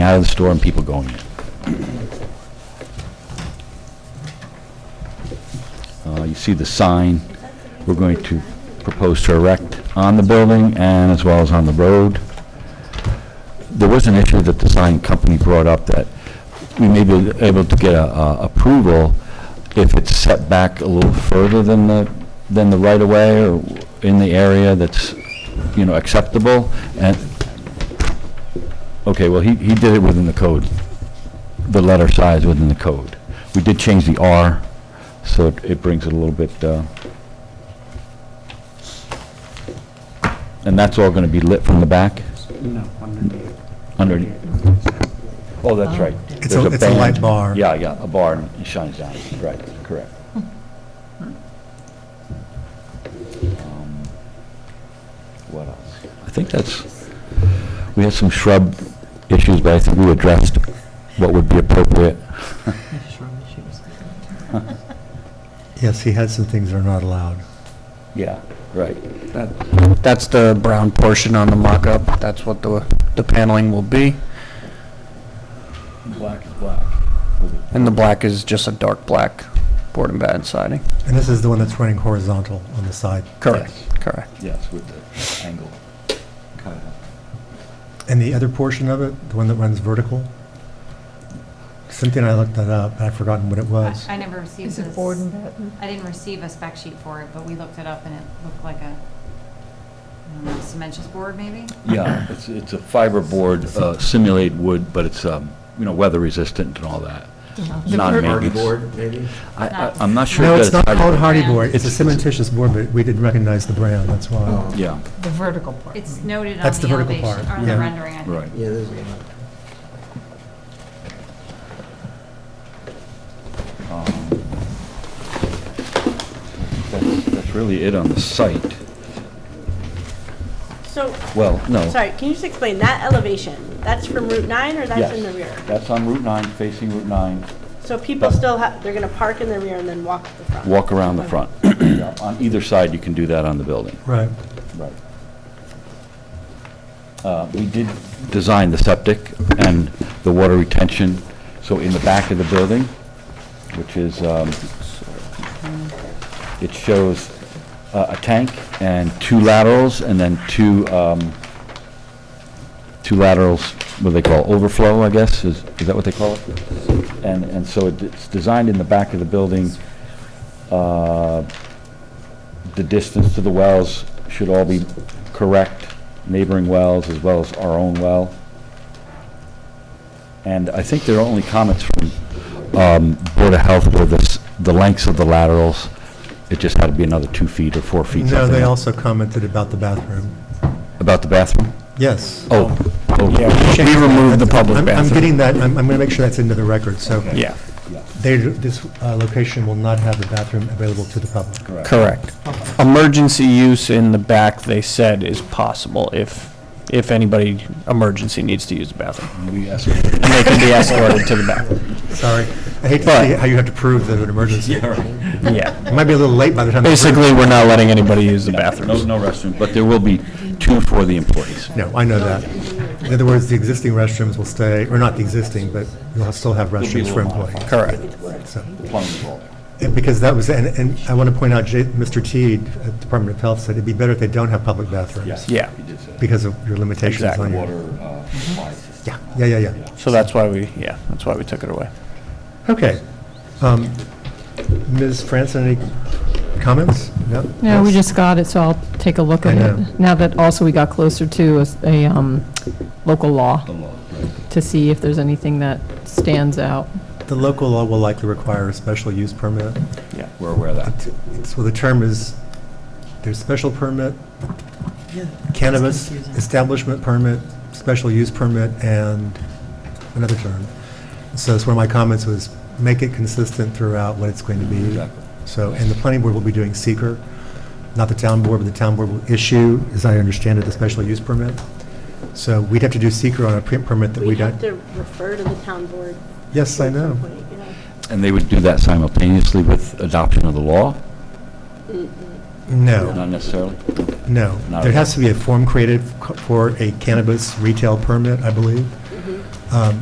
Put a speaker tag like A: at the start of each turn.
A: out of the store and people going in. Uh, You see the sign we're going to propose to erect on the building and as well as on the road. There was an issue that the sign company brought up that we may be able to get a- a approval if it's set back a little further than the, than the right-of-way or in the area that's, you know, acceptable. And, okay, well, he, he did it within the code, the letter size within the code. We did change the R, so it- it brings it a little bit, uh, and that's all going to be lit from the back?
B: No, underneath.
A: Underneath. Oh, that's right.
C: It's
A: There's
C: a, it's a light
A: band.
C: bar.
A: Yeah, yeah, a bar, and it shines down, right, correct. Um, What else? I think that's, we had some shrub issues, but I think we addressed what would be appropriate.
C: Yes, he had some things that are not allowed.
A: Yeah, right.
B: That- That's the brown portion on the mock-up. That's what the, the paneling will be.
A: Black is black.
B: And the black is just a dark black board and batten siding.
C: And this is the one that's running horizontal on the side.
B: Correct, correct.
A: Yes, with the angle cut out.
C: And the other portion of it, the one that runs vertical? Cynthia and I looked that up, and I'd forgotten what it was.
D: I I never received
E: Is
D: this.
E: it board and batten?
D: I didn't receive a spec sheet for it, but we looked it up and it looked like a, I don't know, cementous board maybe?
A: Yeah, it's, it's a fiber board, uh, simulate wood, but it's, um, you know, weather resistant and all that.
E: The
A: Non
E: ver-
A: maintenance.
F: maybe?
A: I, I, I'm not sure.
C: No,
A: that
C: it's not called hardy
D: Brown.
C: board, it's a cementitious board, but we didn't recognize the brand, that's why.
A: Yeah,
E: The vertical part.
D: It's noted on
C: That's the
D: the
C: vertical
D: elevation,
C: part,
D: or
C: yeah.
D: the rendering, I think.
A: right.
F: Yeah, there's a lot.
A: Um, That's, that's really it on the site.
G: So,
A: Well, no.
G: sorry, can you just explain that elevation? That's from Route 9 or that's
A: Yes,
G: in the rear?
A: That's on Route 9, facing Route 9,
G: So people
A: that-
G: still have, they're going to park in the rear and then walk to the front?
A: walk around the front. Yeah, On either side, you can do that on the building.
C: Right.
A: Right. Uh, We did design the septic and the water retention, so in the back of the building, which is, um, it shows uh, a tank and two laterals, and then two, um, two laterals, what do they call, it? overflow, I guess, is is that what they call it? And, and so it's designed in the back of the building uh, the distance to the wells should all be correct, neighboring wells as well as our own well. And I think there are only comments from um, Board of Health were the, s- the lengths of the laterals. It just had to be another two feet or four feet,
C: No, they
A: something
C: also commented about the bathroom.
A: about the bathroom.
C: Yes.
A: Oh, oh,
B: We removed the public
C: I'm- I'm
B: bathroom.
C: getting that, I'm, I'm gonna make sure that's into the record, so.
B: Yeah,
C: They, this uh, location will not have the bathroom available to the public.
B: correct. Emergency use in the back, they said, is possible if, if anybody emergency needs to use the bathroom.
A: we escorted.
B: And they can be escorted to the back.
C: Sorry. I hate to
B: But-
C: see how you have to prove that an emergency. It
B: Yeah.
C: might be a little late by the time. the-
B: Basically, we're not letting anybody use the
A: No,
B: bathrooms.
A: no restroom, but there will be two for the employees.
C: No, I know that. In other words, the existing restrooms will stay, or not the existing, but you'll still have restrooms for employees.
B: Correct.
C: So-
A: The plumbing's all there.
C: and Because that was, and, and I want to point out, J- Mr. Teed, at Department of Health, said it'd be better if they don't have public bathrooms.
B: Yeah.
A: He did say that.
C: Because of your limitations on
B: Exactly.
C: your.
A: Water uh, supply system.
C: Yeah, yeah, yeah, yeah.
B: So that's why we, yeah, that's why we took it away.
C: Okay. Um, Ms. Franson, any comments? No?
E: No, we
C: Yes?
E: just got it, so I'll take a look
C: I
E: at
C: know.
E: it. Now that also we got closer to a s- a um, local law, to see if there's anything that stands out.
C: The local law will likely require a special use permit.
B: Yeah.
A: We're aware of that.
C: So the term is, there's special permit, cannabis
E: confusing.
C: establishment permit, special use permit, and another term. So that's one of my comments was, make it consistent throughout what it's going to be.
A: Exactly.
C: So, and the planning board will be doing seeker, not the town board, but the town board will issue, as I understand it, the special use permit. So we'd have to do seeker on a pre- permit that we
G: We
C: don't.
G: have to refer to the town board.
C: Yes, I
G: at some
C: know.
G: point, you know?
A: And they would do that simultaneously with adoption of the law?
C: No.
A: Not necessarily?
C: No,
A: Not
C: there
A: at
G: mm-hmm.
C: has to be a form created c- for a cannabis retail permit, I believe. Um,